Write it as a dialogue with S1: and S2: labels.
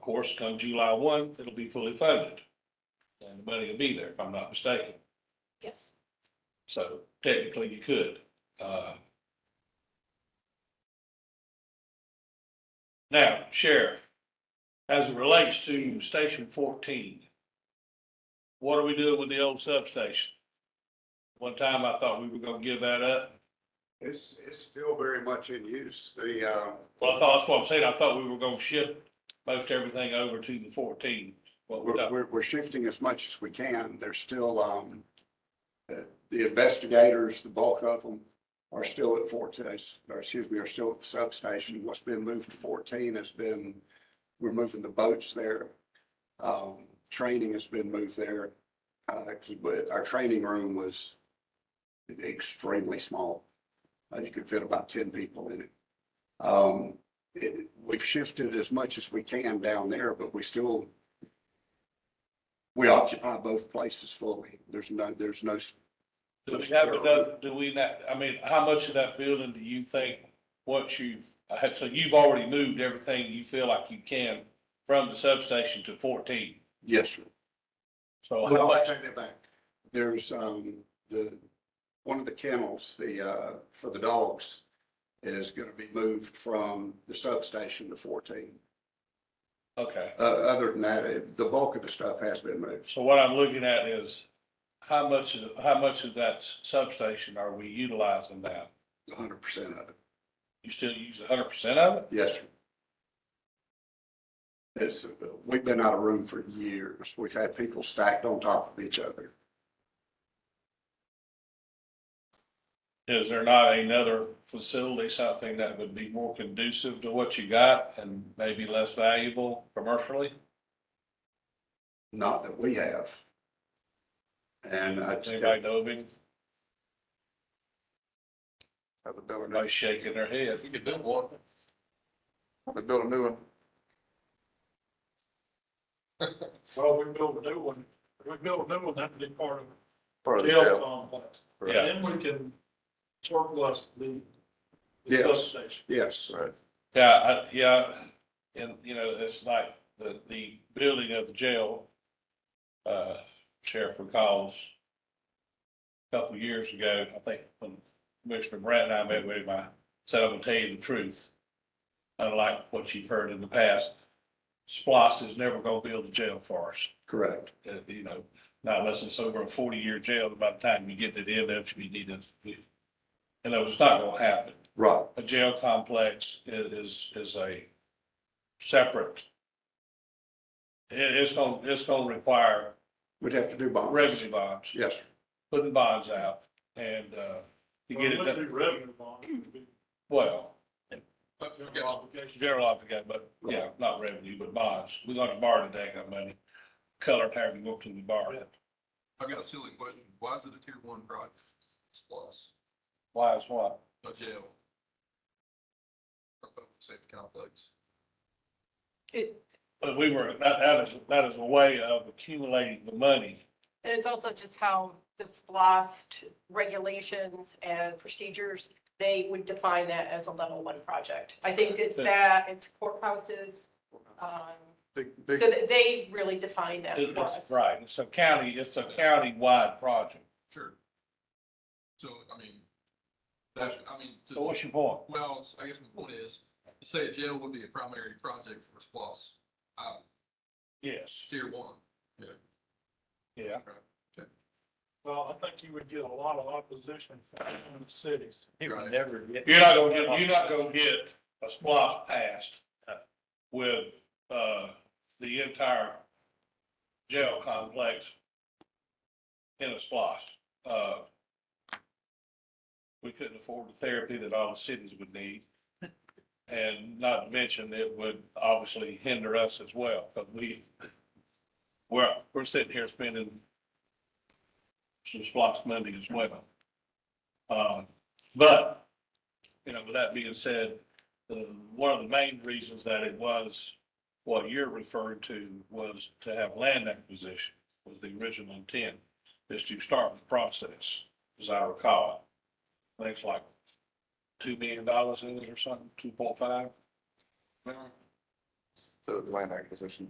S1: course, come July one, it'll be fully funded. And the money will be there, if I'm not mistaken.
S2: Yes.
S1: So technically you could. uh. Now, Sheriff, as it relates to Station fourteen, what are we doing with the old substation? One time I thought we were gonna give that up.
S3: It's, it's still very much in use. The, uh,
S1: Well, I thought, that's what I'm saying. I thought we were gonna ship most everything over to the fourteen. What we're
S3: we're,
S1: talking-
S3: we're, we're shifting as much as we can. There's still, um, uh, the investigators, the bulk of them are still at Fortes, or excuse me, are still at the substation. What's been moved to fourteen has been, we're moving the boats there. Um, training has been moved there. Uh, but our training room was extremely small. Uh, you could fit about ten people in it. Um, it, we've shifted as much as we can down there, but we still we occupy both places fully. There's no, there's no,
S1: do we have enough, do we not, I mean, how much of that building do you think, once you've, I had- so you've already moved everything you feel like you can from the substation to fourteen?
S3: yes, sir.
S1: So how
S3: Well, I
S1: much,
S3: take that back. There's, um, the, one of the kennels, the, uh, for the dogs is going to be moved from the substation to fourteen.
S1: okay,
S3: Uh, other than that, it- the bulk of the stuff has been moved.
S1: so what I'm looking at is how much, of- how much of that s- substation are we utilizing now?
S3: hundred percent of it.
S1: You still use hundred percent of it?
S3: Yes, sir. It's, uh, we've been out of room for years. We've had people stacked on top of each other.
S1: Is there not another facility, something that would be more conducive to what you got and maybe less valuable commercially?
S3: Not that we have. And I.
S1: Does Anybody know of any?
S4: Have to build a
S1: Everybody's shaking their head.
S4: new, you could build one. Have to build a new one.
S5: Well, we build a new one, If we build a new one, that'd be part of
S4: Part of
S5: the
S4: the
S5: jail
S4: jail.
S5: complex.
S1: Yeah.
S5: Then we can surplus the the
S3: Yes.
S5: substation.
S3: Yes,
S4: Right.
S1: Yeah, I, yeah, and you know, it's like the, the building of the jail, uh, Sheriff recalls a couple of years ago, I think when Commissioner Brant and I met with him, I said, I'm gonna tell you the truth. Unlike what you've heard in the past, SPOS is never gonna build a jail for us.
S3: correct.
S1: uh, you know, not unless it's over a forty-year jail, by the time you get to the end of it, you need to. And that was not gonna happen.
S3: Right,
S1: A jail complex i- is, is a separate. It, it's gonna, it's gonna require
S3: we'd have to do bonds.
S1: revenue bonds,
S3: Yes, sir.
S1: putting bonds out and, uh, to
S5: Well,
S1: get it
S5: it wouldn't
S1: done,
S5: be revenue bond, it would be
S1: well,
S5: obligation.
S1: general obligation, but yeah, not revenue, but bonds. We're gonna borrow the dang of money, color however you want to be borrowed.
S6: I got a silly question. Why is it a tier one project? It's plus,
S1: Why is what?
S6: a jail. A public Safety complex.
S2: It,
S1: But we were, that, that is, that is a way of accumulating the money.
S2: and it's also just how the SLOST regulations and procedures, they would define that as a level one project. I think it's that, it's courthouses. um,
S4: Big,
S2: So
S4: big,
S2: that they really define that
S1: It-
S2: for
S1: It's,
S2: us.
S1: right, it's a county, it's a county-wide project.
S6: Sure. So, I mean, that's, I mean, to-
S1: So what's your point?
S6: well, I guess my point is, to say a jail would be a primary project for SPOS, uh,
S1: Yes,
S6: tier one.
S1: yeah.
S5: Well, I think you would get a lot of opposition from the cities.
S6: It would
S4: never get.
S1: You're not gonna get, you're not gonna get a splosh passed with, uh, the entire jail complex in a splosh. Uh, we couldn't afford the therapy that all the cities would need. And not to mention, it would obviously hinder us as well, but we, we're, we're sitting here spending some splosh money as well. Uh, but you know, with that being said, uh, one of the main reasons that it was what you're referring to was to have land acquisition was the original intent, is to start the process, as I recall. I think it's like two million dollars in it or something, two point five.
S4: So the land acquisition.